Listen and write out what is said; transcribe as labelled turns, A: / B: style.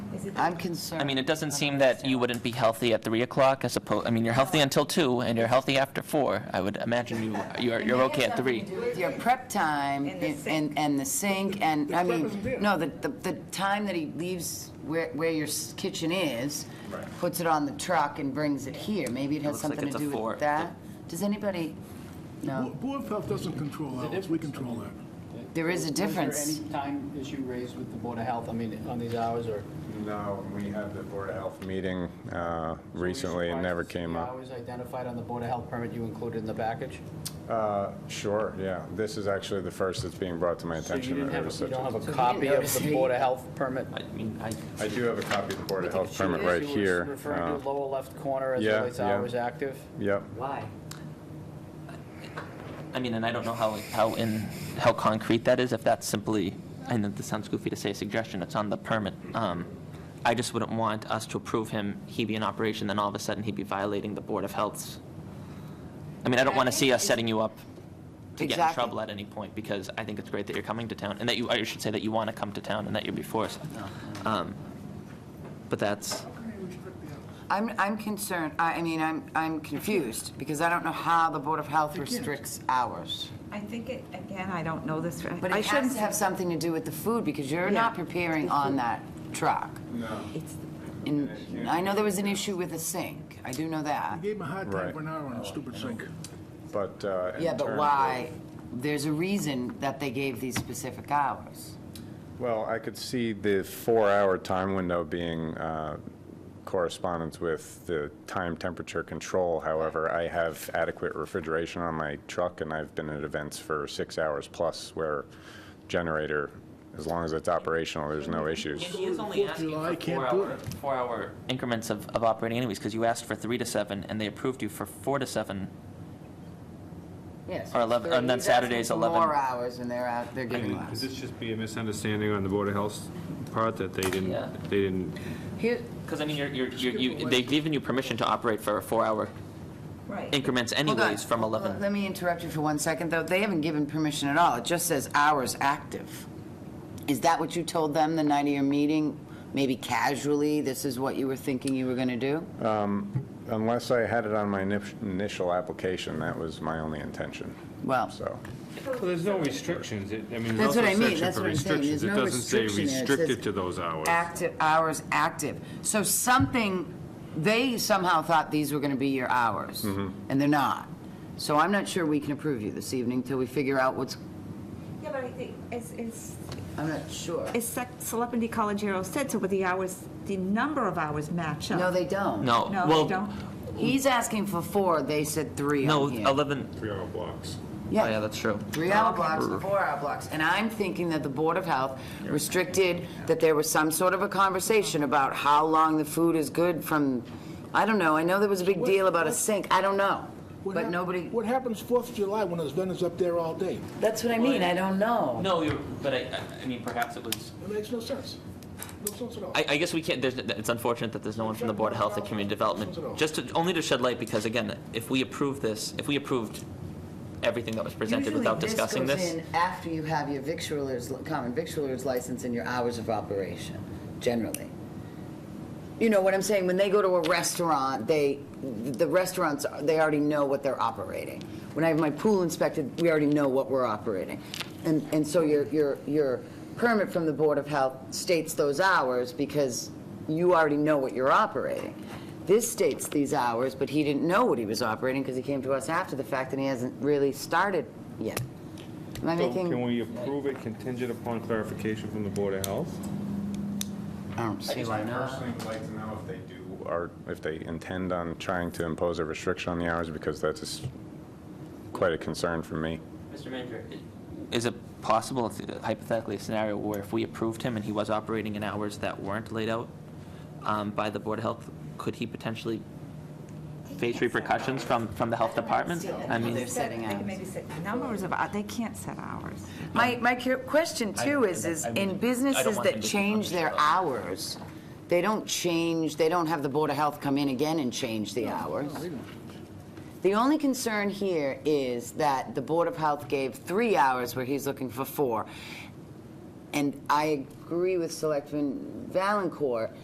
A: I'm concerned.
B: I mean, it doesn't seem that you wouldn't be healthy at 3 o'clock as opposed, I mean, you're healthy until 2, and you're healthy after 4. I would imagine you, you're, you're okay at 3.
A: With Your prep time
C: And the
A: and,
C: sink.
A: and- and the sink and,
D: The
A: I
D: prep
A: mean,
D: isn't there.
A: no, the, the, the time that he leaves where, where your s- kitchen is, puts it on the truck and brings it here. Maybe it has
B: looks like
A: something
B: it's
A: to
B: a
A: do
B: four-
A: with that? Does anybody, no,
D: Bo- Board of Health doesn't control hours, we control that.
A: there is a
E: Was
A: difference.
E: there any time issue raised with the Board of Health, I mean, on these hours, or?
F: No, we had the Board of Health meeting uh, recently, it never came
E: The
F: up.
E: hours identified on the Board of Health permit you included in the package?
F: Uh, Sure, yeah, this is actually the first that's being brought to my
E: So you
F: attention.
E: didn't
F: that it
E: have,
F: was
E: a- you
F: such a-
E: don't have a
A: didn't
E: copy of
A: notice
E: the
A: it.
E: Board of Health permit?
B: I mean, I,
F: I do have a copy of the Board of Health
E: You
F: permit right
E: were
F: here.
E: Referring to
F: Uh,
E: lower left corner as it
F: yeah,
E: relates to
F: yeah.
E: hours active?
F: Yep,
A: Why?
B: I mean, and I don't know how, how in, how concrete that is, if that's simply, I know this sounds goofy to say a suggestion, it's on the permit. Um, I just wouldn't want us to approve him, he be in operation, then all of a sudden he'd be violating the Board of Health's. I mean, I don't want to see us setting you up to get in
A: Exactly.
B: trouble at any point, because I think it's great that you're coming to town, and that you, I should say that you want to come to town and that you're before us. Um, But that's,
D: How can they restrict the hours?
A: I'm, I'm concerned, I, I mean, I'm, I'm confused because I don't know how the Board of Health restricts hours.
C: I think it, again, I don't know this.
A: But
C: I
A: it has
C: shouldn't
A: to have something to do with the food because you're
C: Yeah.
A: not preparing on that truck.
C: It's
A: And I know there was an issue with a sink. I do know that.
D: Gave him a hard time
F: Right.
D: for an hour on a stupid sink.
F: but uh, in
A: Yeah,
F: terms
A: but
F: of-
A: why? There's a reason that they gave these specific hours.
F: Well, I could see the four-hour time window being uh, correspondence with the time temperature control. However, I have adequate refrigeration on my truck, and I've been at events for six hours plus where generator, as long as it's operational, there's no issues.
B: He is only
D: Fourth of
B: asking
D: July,
B: for
D: can't
B: four
D: do
B: hour,
D: it.
B: four hour increments of, of operating anyways, because you asked for three to seven, and they approved you for four to seven.
A: Yes.
B: Or 11 and then
A: He's asking
B: Saturday's
A: for
B: 11.
A: More hours and they're out, they're giving
G: Could
A: less.
G: this just be a misunderstanding on the Board of Health's part, that they didn't,
B: Yeah.
G: they didn't,
A: Here,
B: Because I mean, you're, you're, you're- you, they've given you permission to operate for four hour
C: right.
B: increments
A: hold on.
B: anyways from
A: Hold on.
B: 11.
A: Let me interrupt you for one second, though. They haven't given permission at all. It just says hours active. Is that what you told them the night of your meeting? Maybe casually, this is what you were thinking you were going to do?
F: Unless I had it on my init- initial application, that was my only intention,
A: Well,
F: so.
G: well, there's no restrictions, It- I mean,
A: That's
G: there's
A: what I
G: also
A: mean.
G: a section
A: That's
G: for
A: what I'm saying.
G: restrictions.
A: There's
G: It
A: no
G: doesn't say
A: restriction there. It says
G: restricted to those hours.
A: active, hours active. So something, they somehow thought these were going to be your hours,
B: Mm-hmm.
A: and they're not. So I'm not sure we can approve you this evening till we figure out what's,
C: Yeah, but I think, as, as,
A: I'm not sure.
C: as Sec- Selectman DiColigiero said, so with the hours, the number of hours match up.
A: No, they don't.
B: No,
C: No, they
B: Oh, well,
C: don't.
A: He's asking for four, they said three
B: no,
A: on here.
B: 11, oh
G: Three-hour blocks.
B: yeah, that's true.
A: Three-hour blocks, the four-hour blocks. And I'm thinking that the Board of Health restricted, that there was some sort of a conversation about how long the food is good from, I don't know, I know there was a big deal about a sink, I don't know.
D: What
A: But
D: hap-
A: nobody,
D: What happens Fourth of July when there's vendors up there all day?
A: that's what I mean, I don't know.
B: No, you're, but I, I- I mean, perhaps it was,
D: It makes no sense. No sense at all.
B: I, I guess we can't, there's, it's unfortunate that there's no one from the Board of Health and Community Development, just to, only to shed light, because again, if we approve this, if we approved everything that was presented without discussing this.
A: Usually this goes in after you have your victualler's, common victualler's license and your hours of operation, generally. You know what I'm saying, when they go to a restaurant, they, the restaurants, they already know what they're operating. When I have my pool inspected, we already know what we're operating. And, and so your, your, your permit from the Board of Health states those hours because you already know what you're operating. This states these hours, but he didn't know what he was operating because he came to us after the fact and he hasn't really started yet. Am I
G: So
A: making?
G: can we approve it contingent upon clarification from the Board of Health?
A: I don't see why
F: I
A: not.
F: personally would like to know if they do, or if they intend on trying to impose a restriction on the hours, because that's just quite a concern for me.
B: Mr. Manager. Is it possible, if- hypothetically, a scenario where if we approved him and he was operating in hours that weren't laid out um, by the Board of Health, could he potentially face repercussions from, from the Health Department? I mean,
A: They're setting
C: They can
A: hours.
C: maybe set numbers of, hou- they can't set hours.
A: My, my cu- question too
B: I-
A: is, is
B: I would- I
A: in
B: don't
A: businesses
B: want
A: that
B: them to be
A: change their
B: punished,
A: hours, they don't change, they don't have the Board of Health come in again and change the hours. The only concern here is that the Board of Health gave three hours where he's looking for four. And I agree with Selectman Valencourt